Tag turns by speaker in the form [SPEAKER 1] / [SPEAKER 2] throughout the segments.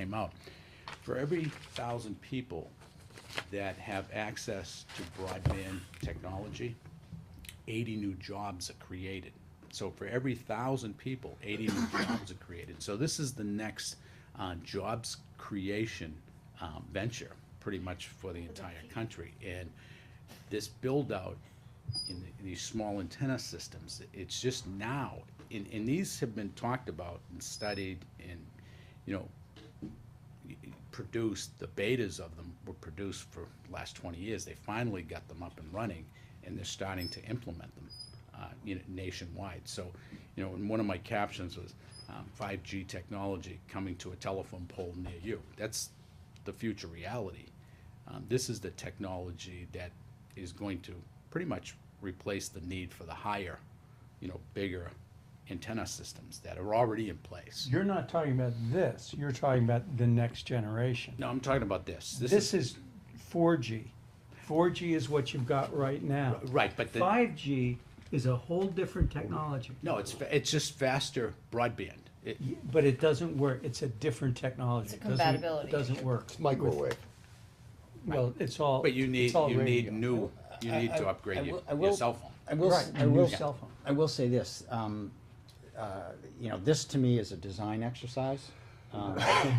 [SPEAKER 1] came out. For every thousand people that have access to broadband technology, eighty new jobs are created. So for every thousand people, eighty new jobs are created. So this is the next uh, jobs creation um, venture, pretty much for the entire country. And this build-out in the- in these small antenna systems, it's just now, and, and these have been talked about and studied and, you know, produced, the betas of them were produced for the last twenty years. They finally got them up and running, and they're starting to implement them, uh, you know, nationwide. So, you know, and one of my captions was, um, five G technology coming to a telephone pole near you. That's the future reality. Um, this is the technology that is going to pretty much replace the need for the higher, you know, bigger antenna systems that are already in place.
[SPEAKER 2] You're not talking about this, you're talking about the next generation.
[SPEAKER 1] No, I'm talking about this. This is
[SPEAKER 2] This is four G. Four G is what you've got right now.
[SPEAKER 1] Right, but the,
[SPEAKER 2] Five G is a whole different technology.
[SPEAKER 1] no, it's fa- it's just faster broadband. It,
[SPEAKER 2] Y- But it doesn't work, it's a different
[SPEAKER 3] It's
[SPEAKER 2] technology.
[SPEAKER 3] a
[SPEAKER 2] It doesn't-
[SPEAKER 3] compatibility
[SPEAKER 2] It doesn't work.
[SPEAKER 4] Microwave.
[SPEAKER 2] Well, it's all,
[SPEAKER 1] but you need
[SPEAKER 2] it's all
[SPEAKER 1] you need
[SPEAKER 2] radio.
[SPEAKER 1] new you need to upgrade
[SPEAKER 5] I
[SPEAKER 1] your,
[SPEAKER 5] will- I
[SPEAKER 1] your
[SPEAKER 5] will-
[SPEAKER 1] cell phone.
[SPEAKER 5] I will, s-
[SPEAKER 2] Right,
[SPEAKER 5] I
[SPEAKER 2] a new
[SPEAKER 5] will,
[SPEAKER 2] cell phone.
[SPEAKER 5] I will say this, um, uh, you know, this to me is a design exercise. Um,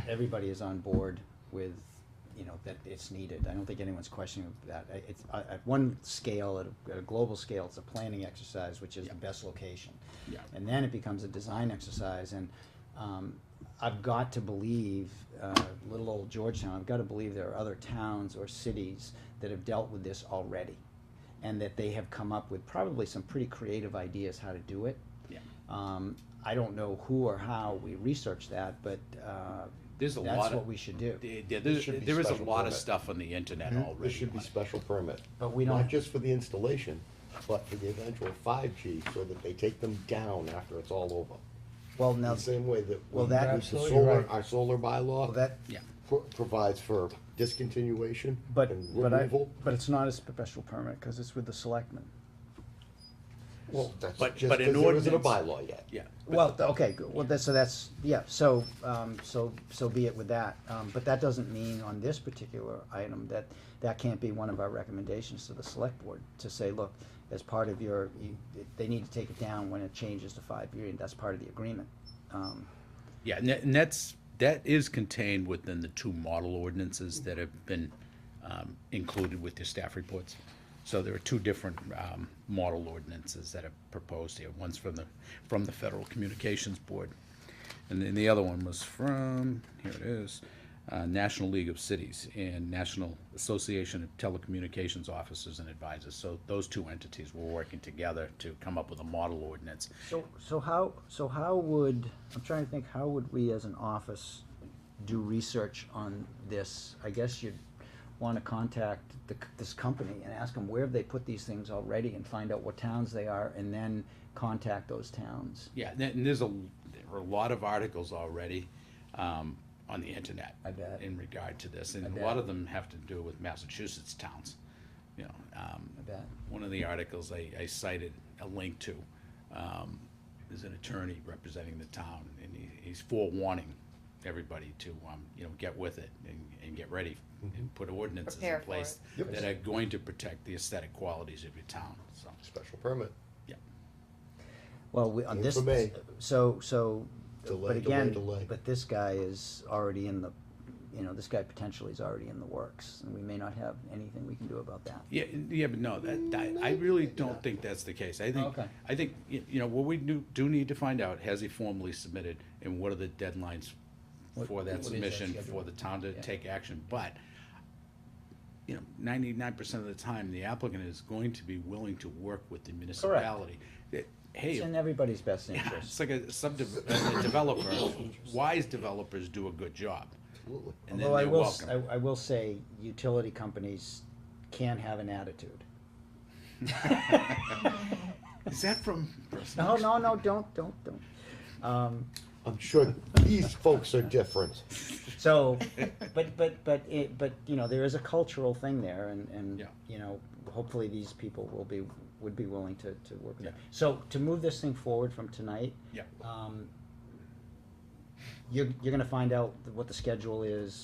[SPEAKER 5] Everybody is on board with, you know, that it's needed. I don't think anyone's questioning that. I- It's, uh, at one scale, at a, at a global scale, it's a planning exercise, which is the best location.
[SPEAKER 1] Yeah.
[SPEAKER 5] And then it becomes a design exercise, and, um, I've got to believe, uh, little old Georgetown, I've gotta believe there are other towns or cities that have dealt with this already and that they have come up with probably some pretty creative ideas how to do it.
[SPEAKER 1] Yeah.
[SPEAKER 5] Um, I don't know who or how we research that, but uh,
[SPEAKER 1] There's a
[SPEAKER 5] that's
[SPEAKER 1] lot of-
[SPEAKER 5] what we should do.
[SPEAKER 1] There, there- there-
[SPEAKER 4] should be
[SPEAKER 1] there is a
[SPEAKER 4] special
[SPEAKER 1] lot of
[SPEAKER 4] permit.
[SPEAKER 1] stuff on the internet already.
[SPEAKER 4] This should be
[SPEAKER 1] on it.
[SPEAKER 4] special permit.
[SPEAKER 5] But we don't-
[SPEAKER 4] Not just for the installation, but for the eventual five G, so that they take them down after it's all over.
[SPEAKER 5] well, now,
[SPEAKER 4] The same way that.
[SPEAKER 5] Well,
[SPEAKER 4] we-
[SPEAKER 5] that-
[SPEAKER 4] the
[SPEAKER 2] Absolutely
[SPEAKER 4] solar-
[SPEAKER 2] right.
[SPEAKER 4] Our solar bylaw.
[SPEAKER 5] well, that,
[SPEAKER 1] Yeah.
[SPEAKER 4] pro- Provides for discontinuation
[SPEAKER 5] but
[SPEAKER 4] and
[SPEAKER 5] but I,
[SPEAKER 4] removal.
[SPEAKER 5] but it's not a special permit because it's with the selectmen.
[SPEAKER 4] Well, that's
[SPEAKER 1] but-
[SPEAKER 4] just
[SPEAKER 1] but an
[SPEAKER 4] 'cause there isn't a
[SPEAKER 1] ordinance-
[SPEAKER 4] bylaw yet.
[SPEAKER 1] Yeah.
[SPEAKER 5] Well, okay, good. well, that's, so that's, yeah, so, um, so, so be it with that. Um, but that doesn't mean on this particular item that, that can't be one of our recommendations to the select board, to say, look, as part of your, you, they need to take it down when it changes to five year, and that's part of the agreement. Um,
[SPEAKER 1] Yeah, and that- and that's, that is contained within the two model ordinances that have been um, included with your staff reports. So there are two different um, model ordinances that are proposed here. One's from the, from the Federal Communications Board. And then the other one was from, here it is, uh, National League of Cities and National Association of Telecommunications Officers and Advisors. So those two entities were working together to come up with a model ordinance.
[SPEAKER 5] So, so how, so how would, I'm trying to think, how would we as an office do research on this? I guess you'd want to contact the, c- this company and ask them where have they put these things already and find out what towns they are and then contact those towns.
[SPEAKER 1] Yeah, and and there's a, there are a lot of articles already um, on the internet.
[SPEAKER 5] I bet.
[SPEAKER 1] In regard to this, and a
[SPEAKER 5] bet.
[SPEAKER 1] lot of them have to do with Massachusetts towns, you know. um,
[SPEAKER 5] I bet.
[SPEAKER 1] One of the articles I, I cited a link to, um, is an attorney representing the town, and he, he's forewarning everybody to, um, you know, get with it and, and get ready
[SPEAKER 5] Mm-hmm.
[SPEAKER 1] and put ordinances in
[SPEAKER 3] Prepare for
[SPEAKER 1] place
[SPEAKER 4] it. Yep.
[SPEAKER 1] that are going to protect the aesthetic qualities of your town, so,
[SPEAKER 4] Special permit.
[SPEAKER 1] yeah.
[SPEAKER 5] Well, we, on
[SPEAKER 4] Aim
[SPEAKER 5] this,
[SPEAKER 4] for May.
[SPEAKER 5] so, so,
[SPEAKER 4] Delay,
[SPEAKER 5] but again,
[SPEAKER 4] delay, delay.
[SPEAKER 5] but this guy is already in the, you know, this guy potentially is already in the works and we may not have anything we can do about that.
[SPEAKER 1] Yeah, yeah, but no, that, that, I really don't think that's the case. I think,
[SPEAKER 5] Okay.
[SPEAKER 1] I think, y- you know, what we do, do need to find out, has he formally submitted, and what are the deadlines
[SPEAKER 5] What-
[SPEAKER 1] for
[SPEAKER 5] what
[SPEAKER 1] that
[SPEAKER 5] is that
[SPEAKER 1] submission,
[SPEAKER 5] schedule?
[SPEAKER 1] for the town to
[SPEAKER 5] Yeah.
[SPEAKER 1] take action, but, you know, ninety-nine percent of the time, the applicant is going to be willing to work with the municipality. That, Hey,
[SPEAKER 5] It's in
[SPEAKER 1] yeah,
[SPEAKER 5] everybody's best interest.
[SPEAKER 1] it's like a subdiv- a developer, wise developers do a good job,
[SPEAKER 4] Absolutely.
[SPEAKER 1] and then
[SPEAKER 5] Although I
[SPEAKER 1] they're
[SPEAKER 5] will, s-
[SPEAKER 1] welcome.
[SPEAKER 5] I, I will say, utility companies can have an attitude.
[SPEAKER 1] Is that from? Bristol?
[SPEAKER 5] No, no, no, don't, don't, don't. Um,
[SPEAKER 4] I'm sure these folks are different.
[SPEAKER 5] so, but, but, but, it, but, you know, there is a cultural thing there and, and,
[SPEAKER 1] Yeah.
[SPEAKER 5] you know, hopefully these people will be, would be willing to, to work with it.
[SPEAKER 1] Yeah.
[SPEAKER 5] um, So to move this thing forward from tonight,
[SPEAKER 1] Yeah.
[SPEAKER 5] um, you're, you're gonna find out what the schedule is,